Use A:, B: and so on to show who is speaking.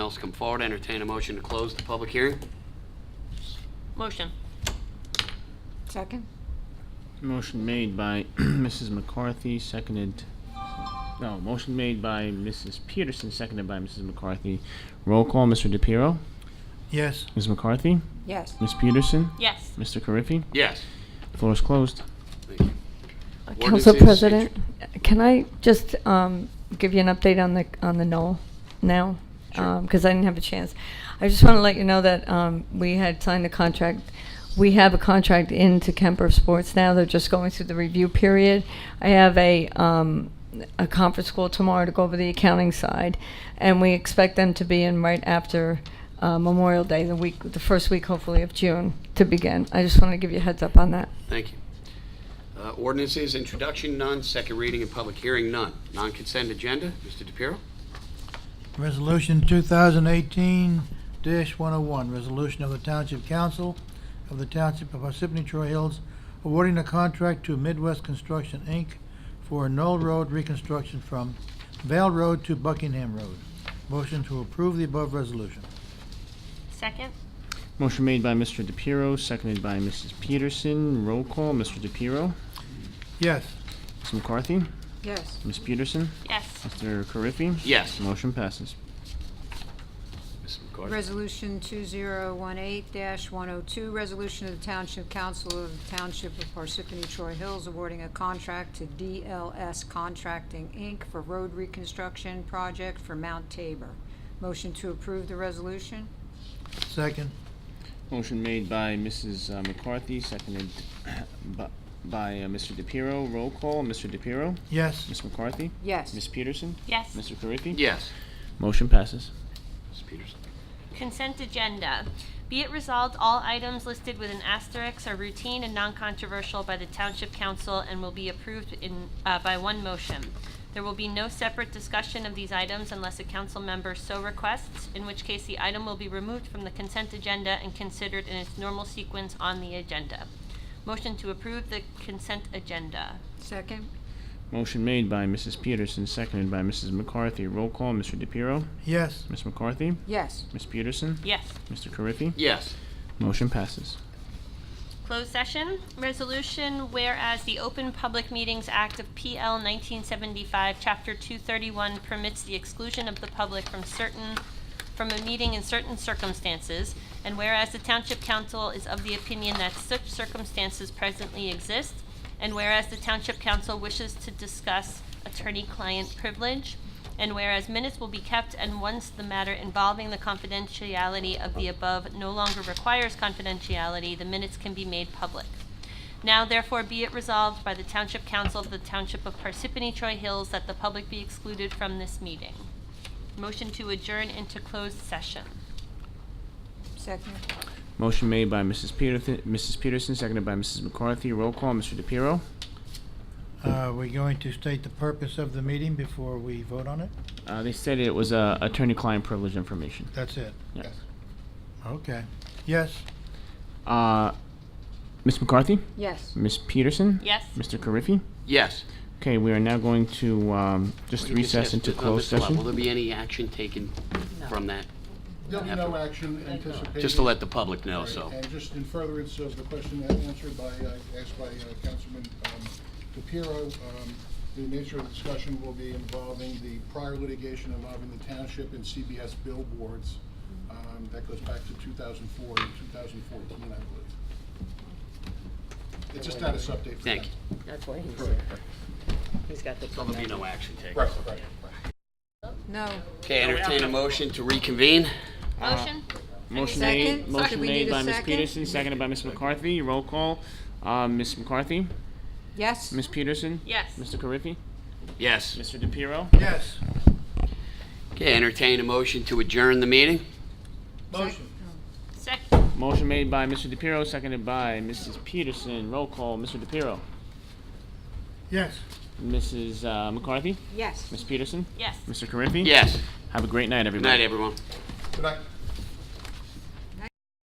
A: else come forward, entertain a motion to close the public hearing.
B: Motion.
C: Second?
D: Motion made by Mrs. McCarthy, seconded, no, motion made by Mrs. Peterson, seconded by Mrs. McCarthy. Roll call, Mr. DePiero,
E: Yes.
D: Ms. McCarthy,
C: Yes.
D: Ms. Peterson,
B: Yes.
D: Mr. Carriffy.
A: Yes.
D: Floor is closed.
A: Thank you.
F: Council
A: Ordinances,
F: President, can I just um, give you an update on the, on the Knoll now? Because I didn't have a chance. I just want to let you know that um, we had signed the contract. We have a contract into Kemper Sports now. They're just going through the review period. I have a, um, a conference call tomorrow to go over the accounting side, and we expect them to be in right after uh, Memorial Day, the week, the first week hopefully of June to begin. I just want to give you a heads up on that.
A: Thank you. Uh, Ordinances, introduction, none. Second reading and public hearing, none. Non-consent agenda, Mr. DePiero?
E: Resolution 2018-101, resolution of the Township Council of the Township of Parsippany Troy Hills awarding a contract to Midwest Construction, Inc. for a Knoll Road reconstruction from Vale Road to Buckingham Road. Motion to approve the above resolution.
B: Second?
D: Motion made by Mr. DePiero, seconded by Mrs. Peterson. Roll call, Mr. DePiero,
E: Yes.
D: Ms. McCarthy,
C: Yes.
D: Ms. Peterson,
B: Yes.
D: Mr. Carriffy.
A: Yes.
D: Motion passes.
A: Ms. McCarthy?
C: Resolution 2018-102, resolution of the Township Council of the Township of Parsippany Troy Hills awarding a contract to DLS Contracting, Inc. for road reconstruction project for Mount Tabor. Motion to approve the resolution?
E: Second.
D: Motion made by Mrs. uh, McCarthy, seconded bu- by uh, Mr. DePiero. Roll call, Mr. DePiero,
E: Yes.
D: Ms. McCarthy, Ms.
C: Yes.
D: Peterson,
B: Yes.
D: Mr. Carriffy.
A: Yes.
D: Motion passes.
A: Ms. Peterson?
B: Consent agenda. Be it resolved, all items listed with an asterisk are routine and non-controversial by the Township Council and will be approved in, uh, by one motion. There will be no separate discussion of these items unless a council member so requests, in which case the item will be removed from the consent agenda and considered in its normal sequence on the agenda. Motion to approve the consent agenda.
C: Second?
D: Motion made by Mrs. Peterson, seconded by Mrs. McCarthy. Roll call, Mr. DePiero,
E: Yes.
D: Ms. McCarthy,
C: Yes.
D: Ms. Peterson,
B: Yes.
D: Mr. Carriffy.
A: Yes.
D: Motion passes.
B: Closed session, resolution whereas the Open Public Meetings Act of PL 1975, Chapter 231 permits the exclusion of the public from certain, from a meeting in certain circumstances, and whereas the Township Council is of the opinion that such circumstances presently exist, and whereas the Township Council wishes to discuss attorney-client privilege, and whereas minutes will be kept, and once the matter involving the confidentiality of the above no longer requires confidentiality, the minutes can be made public. Now therefore be it resolved by the Township Council of the Township of Parsippany Troy Hills that the public be excluded from this meeting. Motion to adjourn into closed session.
C: Second?
D: Motion made by Mrs. Peterson, Mrs. Peterson, seconded by Mrs. McCarthy. Roll call, Mr. DePiero.
E: Uh, We're going to state the purpose of the meeting before we vote on it?
D: Uh, they said it was uh, attorney-client privilege information.
E: That's it?
D: Yes.
E: Okay. Yes.
D: Uh, Ms. McCarthy,
C: Yes.
D: Ms. Peterson,
B: Yes?
D: Mr. Carriffy.
A: Yes.
D: Okay, we are now going to um, just
A: Well, you just
D: recess
A: asked,
D: into
A: uh,
D: closed
A: Mr. Lott, Will
D: session.
A: there be any action taken from that?
G: There'll be no action anticipated.
A: Just to let the public know, so.
G: And just in furtherance of the question that answered by, uh, asked by uh, Councilman um, DePiero, um, the nature of the discussion will be involving the prior litigation involving the township and CBS billboards. um, That goes back to 2004 and 2014, I believe. It's a status update for
A: Thank
G: that.
A: you.
H: That's why he's,
G: Correct.
H: he's got the.
A: So there'll be no action taken.
G: Right, right, right.
C: No.
A: Okay, entertain a motion to reconvene.
B: Motion?
D: Motion
C: Second?
D: made,
C: Second,
D: motion
C: we
D: made
C: need a
D: by Ms.
C: second?
D: Peterson, seconded by Ms. McCarthy. Roll call, uh, Ms. McCarthy,
C: Yes?
D: Ms. Peterson,
B: Yes.
D: Mr. Carriffy,
A: Yes.
D: Mr. DePiero.
E: Yes.
A: Okay, entertain a motion to adjourn the meeting.
E: Motion.
B: Second?
D: Motion made by Mr. DePiero, seconded by Mrs. Peterson. Roll call, Mr. DePiero,
E: Yes.
D: Mrs. uh, McCarthy,
C: Yes.
D: Ms. Peterson,
B: Yes.
D: Mr. Carriffy.
A: Yes.
D: Have a great night,
A: Good
D: everybody.
A: night, everyone.
G: Good night.